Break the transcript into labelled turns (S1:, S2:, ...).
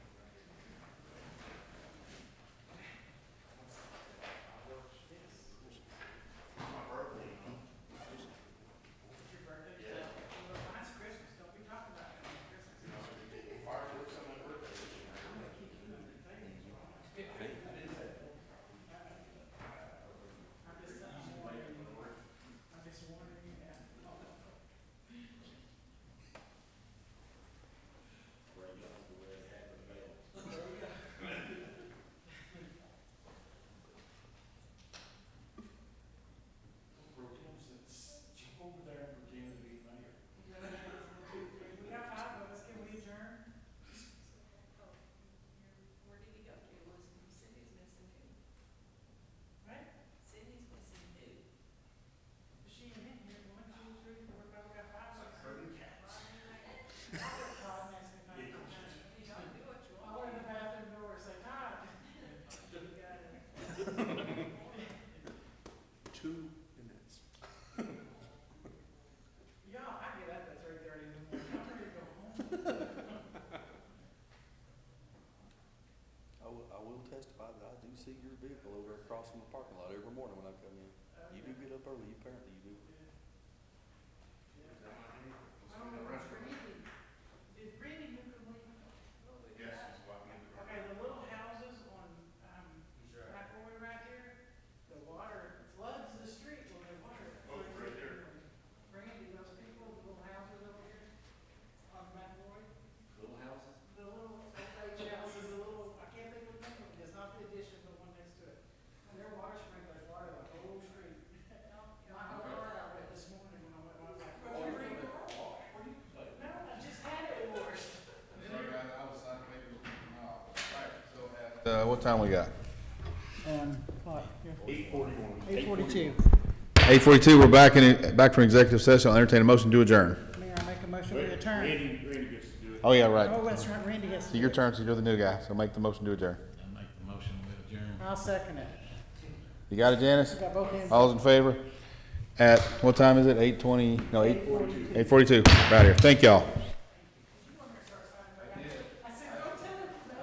S1: testify that I do see your vehicle over across from the parking lot every morning when I come in. You do get up early, you apparently you do.
S2: I don't know, was Randy, did Randy move to
S3: Yes, that's why we have the
S2: Okay, the little houses on, um, McElroy right there, the water floods the street when the water.
S3: Oh, it's right there.
S2: Randy, those people, the little houses over here on McElroy,
S3: Little houses?
S2: the little, old age houses, the little, I can't think of the name, of it. it's not the addition, the one next to it. And their water sprinklers water the whole street. And I had a car out there this morning when I went, I was like, where's your free car wash? Where you-" No, I just had it washed.
S4: Uh, what time we got?
S5: Um, Eight forty-two.
S4: Eight forty-two, we're back in, back from executive session, I'll entertain a motion to adjourn.
S5: Mayor, I make a motion to adjourn.
S3: Randy, Randy gets to do it.
S4: Oh, yeah,
S5: Oh,
S4: right.
S5: that's right, Randy has
S4: So your turn, so you're the new guy, so make the motion to adjourn.
S6: I make the motion with adjourn.
S5: I'll second it.
S4: You got it, Janice?
S5: We got both hands.
S4: All's in favor? At, what time is it? Eight twenty, no, eight? Eight forty-two. Eight forty-two, right here, thank y'all.